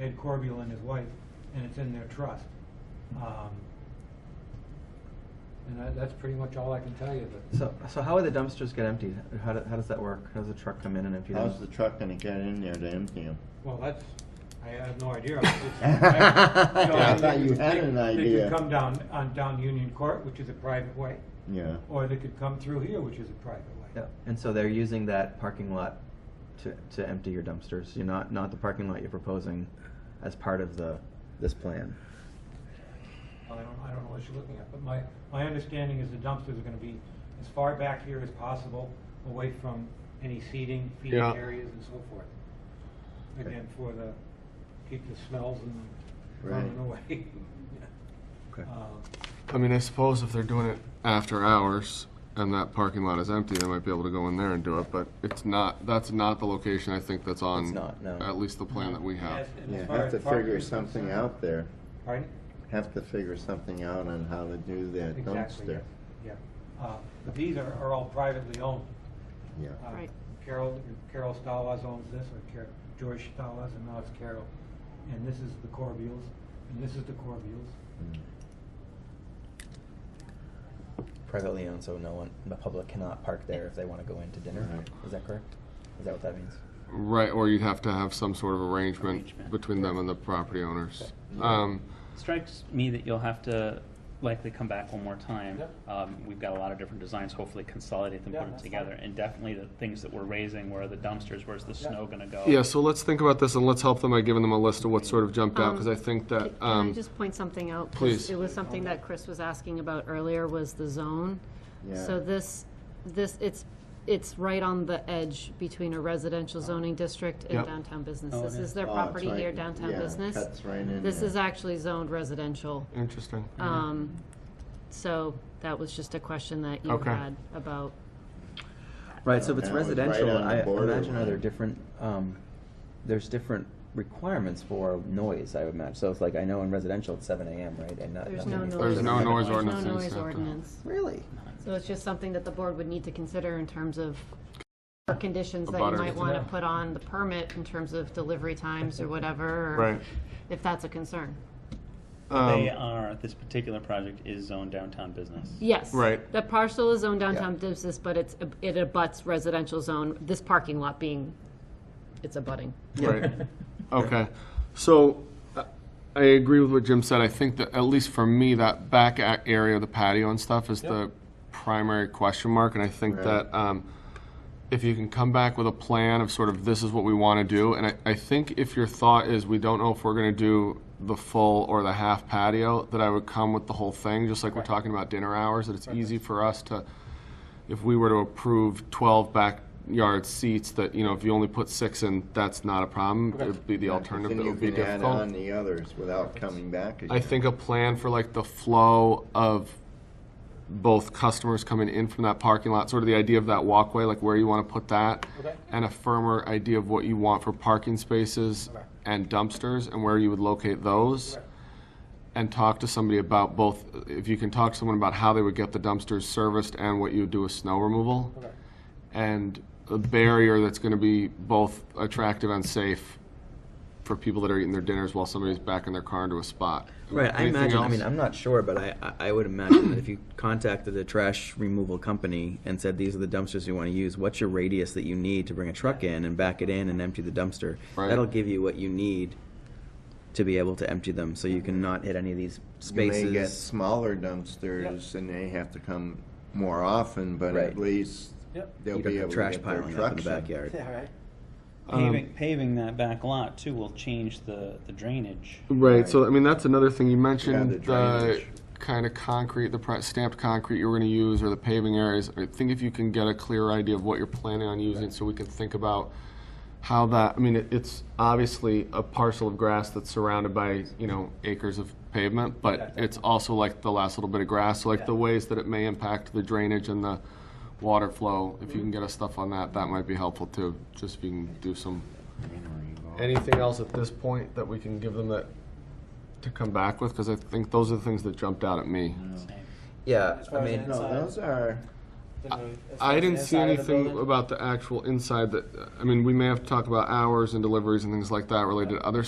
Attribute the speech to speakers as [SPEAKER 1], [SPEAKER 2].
[SPEAKER 1] Ed Corbeil and his wife, and it's in their trust. Um,
[SPEAKER 2] And that, that's pretty much all I can tell you, but.
[SPEAKER 3] So, so how would the dumpsters get emptied? How, do, how does that work? How does the truck come in and empty them?
[SPEAKER 4] How's the truck gonna get in there to empty them?
[SPEAKER 1] Well, that's, I have no idea. It's- it's- you know,
[SPEAKER 4] I thought you
[SPEAKER 1] they-
[SPEAKER 4] had an
[SPEAKER 1] They
[SPEAKER 4] idea.
[SPEAKER 1] could come down, on down Union Court, which is a private way,
[SPEAKER 4] Oh, Yeah.
[SPEAKER 1] or they could come through here, which is a private way.
[SPEAKER 3] Yeah, and so they're using that parking lot to, to empty your dumpsters. You're not, not the parking lot you're proposing as part of the, this plan.
[SPEAKER 1] Well, I don't, I don't know what you're looking at, but my, my understanding is the dumpsters are gonna be as far back here as possible, away from any seating, feeding
[SPEAKER 5] Yeah.
[SPEAKER 1] areas and so forth. Again, for the, keep the smells and
[SPEAKER 4] Right.
[SPEAKER 1] running away.
[SPEAKER 3] Okay.
[SPEAKER 1] Um,
[SPEAKER 5] I mean, I suppose if they're doing it after hours and that parking lot is empty, they might be able to go in there and do it, but it's not, that's not the location I think that's on.
[SPEAKER 3] It's not, no.
[SPEAKER 5] At least the plan that we have.
[SPEAKER 1] as- and as
[SPEAKER 4] Yeah,
[SPEAKER 1] far
[SPEAKER 4] have
[SPEAKER 1] as
[SPEAKER 4] to
[SPEAKER 1] parking
[SPEAKER 4] figure
[SPEAKER 1] is
[SPEAKER 4] something
[SPEAKER 1] concerned-
[SPEAKER 4] out there.
[SPEAKER 1] Pardon?
[SPEAKER 4] Have to figure something out on how to do that
[SPEAKER 1] Exactly,
[SPEAKER 4] dumpster.
[SPEAKER 1] yes, yeah. Uh, But these are, are all privately owned.
[SPEAKER 4] Yeah.
[SPEAKER 1] Uh,
[SPEAKER 6] Right.
[SPEAKER 1] Carol, Carol Stalas owns this, or Car- George Stalas, and now it's Carol. And this is the Corbeils, and this is the Corbeils.
[SPEAKER 4] Mm.
[SPEAKER 3] Privately owned, so no one, the public cannot park there if they want to go in to dinner.
[SPEAKER 4] Right.
[SPEAKER 3] Is that correct? Is that what that means?
[SPEAKER 5] Right, or you'd have to have some sort of arrangement
[SPEAKER 6] Arrangement.
[SPEAKER 5] between them and the property owners. Um,
[SPEAKER 6] Strikes me that you'll have to likely come back one more time. Um, We've got a lot of different designs, hopefully consolidate them,
[SPEAKER 1] Yeah,
[SPEAKER 6] put them
[SPEAKER 1] that's
[SPEAKER 6] together.
[SPEAKER 1] fine.
[SPEAKER 6] And definitely the things that we're raising, where are the dumpsters, where's the snow gonna go?
[SPEAKER 5] Yeah, so let's think about this and let's help them by giving them a list of what sort of jumped out, because I think that,
[SPEAKER 7] Can I
[SPEAKER 5] um,
[SPEAKER 7] just point something out? 'Cause
[SPEAKER 5] please.
[SPEAKER 7] It was something that Chris was asking about earlier, was the zone.
[SPEAKER 4] Yeah.
[SPEAKER 7] So this, this, it's, it's right on the edge between a residential zoning district and
[SPEAKER 5] Yep.
[SPEAKER 7] downtown business.
[SPEAKER 6] Oh, it
[SPEAKER 7] This
[SPEAKER 6] is.
[SPEAKER 7] is their
[SPEAKER 4] Oh, it's
[SPEAKER 7] property
[SPEAKER 4] right-
[SPEAKER 7] here, downtown
[SPEAKER 4] yeah,
[SPEAKER 7] business.
[SPEAKER 4] cuts right in
[SPEAKER 7] This
[SPEAKER 4] there.
[SPEAKER 7] is actually zoned residential.
[SPEAKER 5] interesting.
[SPEAKER 7] Um, so that was just a question that you
[SPEAKER 5] Okay.
[SPEAKER 7] had about,
[SPEAKER 3] Right, so if it's
[SPEAKER 4] That was right
[SPEAKER 3] residential,
[SPEAKER 4] on the
[SPEAKER 3] I
[SPEAKER 4] border
[SPEAKER 3] imagine are there
[SPEAKER 4] line.
[SPEAKER 3] different, um, there's different requirements for noise, I would imagine. So it's like, I know in residential it's seven AM, right? And not.
[SPEAKER 7] there's
[SPEAKER 3] nothing
[SPEAKER 7] no
[SPEAKER 3] is-
[SPEAKER 7] noise.
[SPEAKER 5] There's no noise
[SPEAKER 7] there's
[SPEAKER 5] ordinance in
[SPEAKER 7] no noise
[SPEAKER 5] Southampton.
[SPEAKER 7] ordinance.
[SPEAKER 3] Really?
[SPEAKER 7] So it's just something that the board would need to consider in terms of or conditions that you
[SPEAKER 5] Abutters.
[SPEAKER 7] might want to
[SPEAKER 1] Yeah.
[SPEAKER 7] put on the permit in terms of delivery times or whatever. or
[SPEAKER 5] Right.
[SPEAKER 7] If that's a concern.
[SPEAKER 6] They
[SPEAKER 5] Um,
[SPEAKER 6] are, this particular project is zoned downtown business.
[SPEAKER 7] Yes.
[SPEAKER 5] Right.
[SPEAKER 7] The parcel is zoned downtown business, but it's, it abuts residential zone, this parking lot being, it's abutting.
[SPEAKER 6] uh,
[SPEAKER 5] Right. Okay. So uh, I agree with what Jim said. I think that, at least for me, that back a- area, the patio and stuff, is the primary question mark. And I think
[SPEAKER 4] Right.
[SPEAKER 5] that um, if you can come back with a plan of sort of this is what we want to do, and I, I think if your thought is we don't know if we're going to do the full or the half patio, that I would come with the whole thing, just like we're talking about dinner hours, that it's easy for us to if we were to approve 12 backyard seats, that, you know, if you only put six in, that's not a problem. It would be the alternative
[SPEAKER 4] Then
[SPEAKER 5] that
[SPEAKER 4] you
[SPEAKER 5] would be
[SPEAKER 4] can add on
[SPEAKER 5] difficult.
[SPEAKER 4] the others without coming back again.
[SPEAKER 5] I think a plan for like the flow of both customers coming in from that parking lot, sort of the idea of that walkway, like where you want to put that, and a firmer idea of what you want for parking spaces and dumpsters and where you would locate those. And talk to somebody about both, if you can talk to someone about how they would get the dumpsters serviced and what you would do with snow removal. And a barrier that's going to be both attractive and safe for people that are eating their dinners while somebody's backing their car into a spot.
[SPEAKER 3] Right, I
[SPEAKER 5] Anything
[SPEAKER 3] imagine. I
[SPEAKER 5] else?
[SPEAKER 3] mean, I'm not sure, but I, I I would imagine that if you contacted a trash removal company and said, these are the dumpsters you want to use, what's your radius that you need to bring a truck in and back it in and empty the dumpster?
[SPEAKER 5] Right.
[SPEAKER 3] That'll give you what you need to be able to empty them, so you can not hit any of these spaces.
[SPEAKER 4] You may get smaller dumpsters and they have to come more often, but
[SPEAKER 3] Right.
[SPEAKER 4] at least
[SPEAKER 8] Yep.
[SPEAKER 4] they'll
[SPEAKER 3] You don't
[SPEAKER 4] be
[SPEAKER 3] have
[SPEAKER 4] able to
[SPEAKER 3] trash
[SPEAKER 4] get their
[SPEAKER 3] piling up in the
[SPEAKER 4] trucks in.
[SPEAKER 3] backyard.
[SPEAKER 8] Yeah, right.
[SPEAKER 6] Paving, paving that back lot too will change the the drainage.
[SPEAKER 5] Right, so I mean, that's another thing, you
[SPEAKER 4] Yeah,
[SPEAKER 5] mentioned
[SPEAKER 4] the
[SPEAKER 5] the
[SPEAKER 4] drainage.
[SPEAKER 5] kind of concrete, the pre- stamped concrete you were gonna use, or the paving areas. I think if you can get a clear idea of what you're planning on using, so we can think about how that, I mean, it- it's obviously a parcel of grass that's surrounded by, you know, acres of pavement, but it's also like the last little bit of grass, so like the ways that it may impact the drainage and the water flow, if you
[SPEAKER 4] Mm-hmm.
[SPEAKER 5] can get us stuff on that, that might be helpful too, just if you can do some anything else at this point that we can give them that to come back with? Because I think those are the things that jumped out at me.
[SPEAKER 3] Yeah,
[SPEAKER 8] As far
[SPEAKER 3] I
[SPEAKER 8] as
[SPEAKER 3] mean,
[SPEAKER 4] No,
[SPEAKER 8] Inside.
[SPEAKER 4] those are,
[SPEAKER 8] The noise- as far
[SPEAKER 5] I
[SPEAKER 8] as
[SPEAKER 5] didn't
[SPEAKER 8] the
[SPEAKER 5] see
[SPEAKER 8] inside of the
[SPEAKER 5] anything
[SPEAKER 8] building.
[SPEAKER 5] about the actual inside that, I mean, we may have to talk about hours and deliveries and things like that related to other